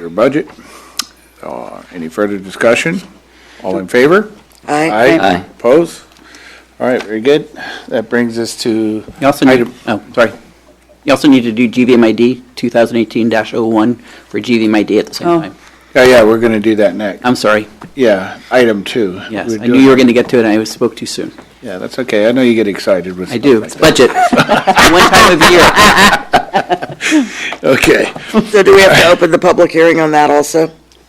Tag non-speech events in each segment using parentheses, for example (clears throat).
your budget. Uh, Any further discussion? All in favor? Aye. Aye. Opposed? All right, very good. That brings us to You also need, item, oh, sorry, you also need to do GVMID 2018-01 for GVMID at the same Oh. time. yeah, yeah, we're going to do that next. I'm sorry, Yeah, item two. Um, yes. We're I knew doing- you were going to get to it, and I spoke too soon. Yeah, that's okay. I know you get excited with I stuff do, like it's budget. (laughs) One time of year. that. Okay. So do we have to open the public hearing on that also?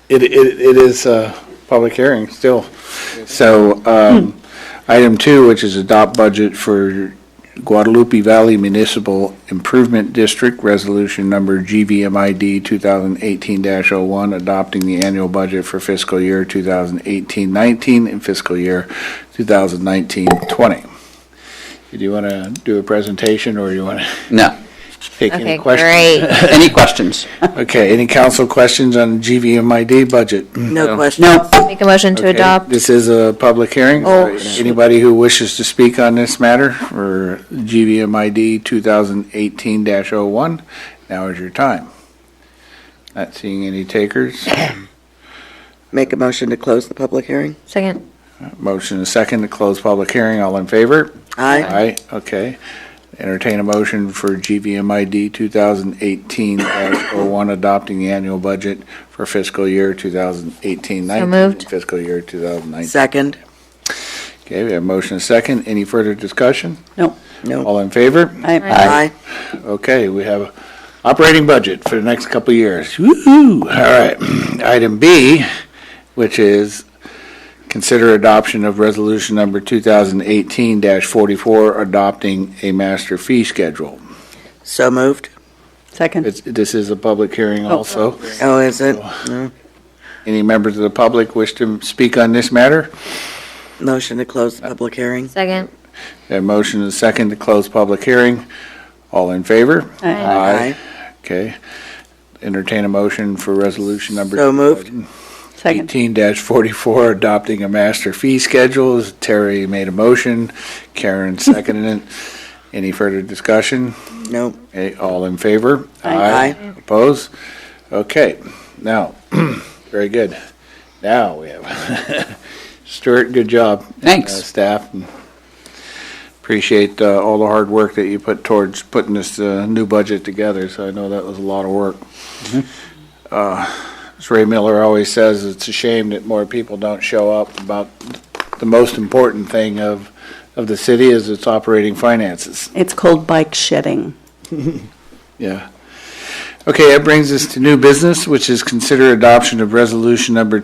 It, it, it is a public hearing still. So, um, item two, which is adopt budget for Guadalupe Valley Municipal Improvement District, resolution number GVMID two thousand eighteen oh one adopting the annual budget for fiscal year 2018-19 and fiscal year 2019-20. Do you want to do a presentation or you want to No. (laughs) take any Okay, questions? great. Any questions? Okay, any council questions on GVMID budget? No question. No. Make a motion to Okay, adopt. This is a public hearing. Oh. Anybody who wishes to speak on this matter for GVMID 2018-01, now is your time. Not seeing any takers. Make a motion to close the public hearing? Second. Motion is second to close public hearing. All in favor? Aye. Aye, okay. Entertain a motion for GVMID 2018-01, adopting the annual budget for fiscal year 2018-19. So moved. Fiscal year 2019. Second? Okay, we have a motion and a second. Any further discussion? No. No. All in favor? Aye. Okay, we have operating budget for the next couple of years. Woo-hoo! All right. (clears throat) Item B, which is consider adoption of resolution number 2018-44, adopting a master fee schedule. So moved? Second. It's, this is a public hearing also. Oh, is it? Any members of the public wish to speak on this matter? Motion to close the public hearing? Second. We have a motion and a second to close public hearing. All in favor? Aye. Okay. Entertain a motion for resolution number. So moved. Eighteen forty-four, adopting a master fee schedule. Terry made a motion, Karen seconded it. Any further discussion? No. Eh, All in favor? Aye. Opposed? Okay, now, (clears throat) very good. Now we have, (laughs) Stuart, good job. Thanks. Uh, Staff, and appreciate uh, all the hard work that you put towards putting this uh, new budget together, so I know that was a lot of work. Mm-hmm. Uh, As Ray Miller always says, it's a shame that more people don't show up about the most important thing of, of the city is its operating finances. It's called bike shedding. Yeah. Okay, that brings us to new business, which is consider adoption of resolution number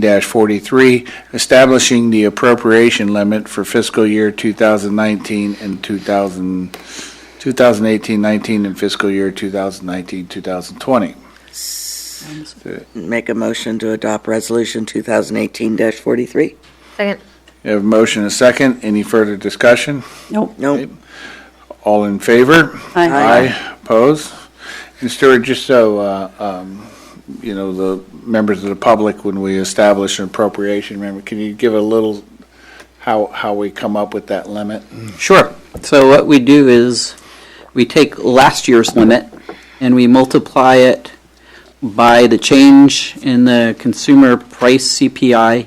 2018-43, establishing the appropriation limit for fiscal year 2019 and 2000, 2018-19 and fiscal year 2019-2020. Make a motion to adopt resolution 2018-43? Second. We have a motion and a second. Any further discussion? Nope. No. All in favor? Aye. Opposed? And Stuart, just so, uh, um, you know, the members of the public, when we establish an appropriation, remember, can you give a little, how, how we come up with that limit? Sure. So what we do is, we take last year's limit, and we multiply it by the change in the consumer price CPI,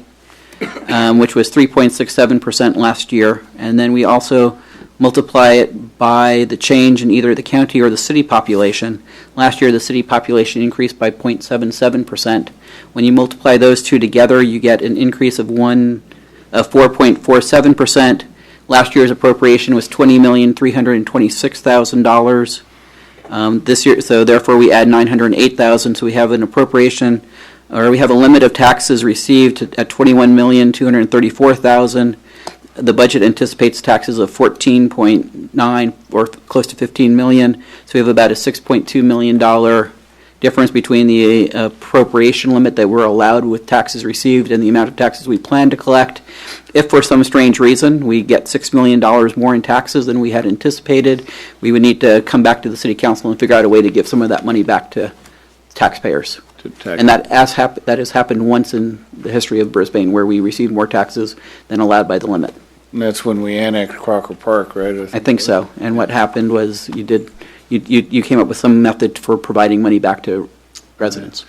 um, which was 3.67% last year, and then we also multiply it by the change in either the county or the city population. Last year, the city population increased by 0.77%. When you multiply those two together, you get an increase of one, of 4.47%. Last year's appropriation was $20,326,000. Um, This year, so therefore, we add 908,000, so we have an appropriation, or we have a limit of taxes received at 21,234,000. The budget anticipates taxes of 14.9, or close to 15 million, so we have about a $6.2 million dollar difference between the appropriation limit that we're allowed with taxes received and the amount of taxes we plan to collect. If for some strange reason we get $6 million more in taxes than we had anticipated, we would need to come back to the city council and figure out a way to give some of that money back to taxpayers. To tax- And that has hap, that has happened once in the history of Brisbane where we received more taxes than allowed by the limit. And that's when we annexed Crocker Park, right? I think so. And what happened was you did, you, you, you came up with some method for providing money back to residents.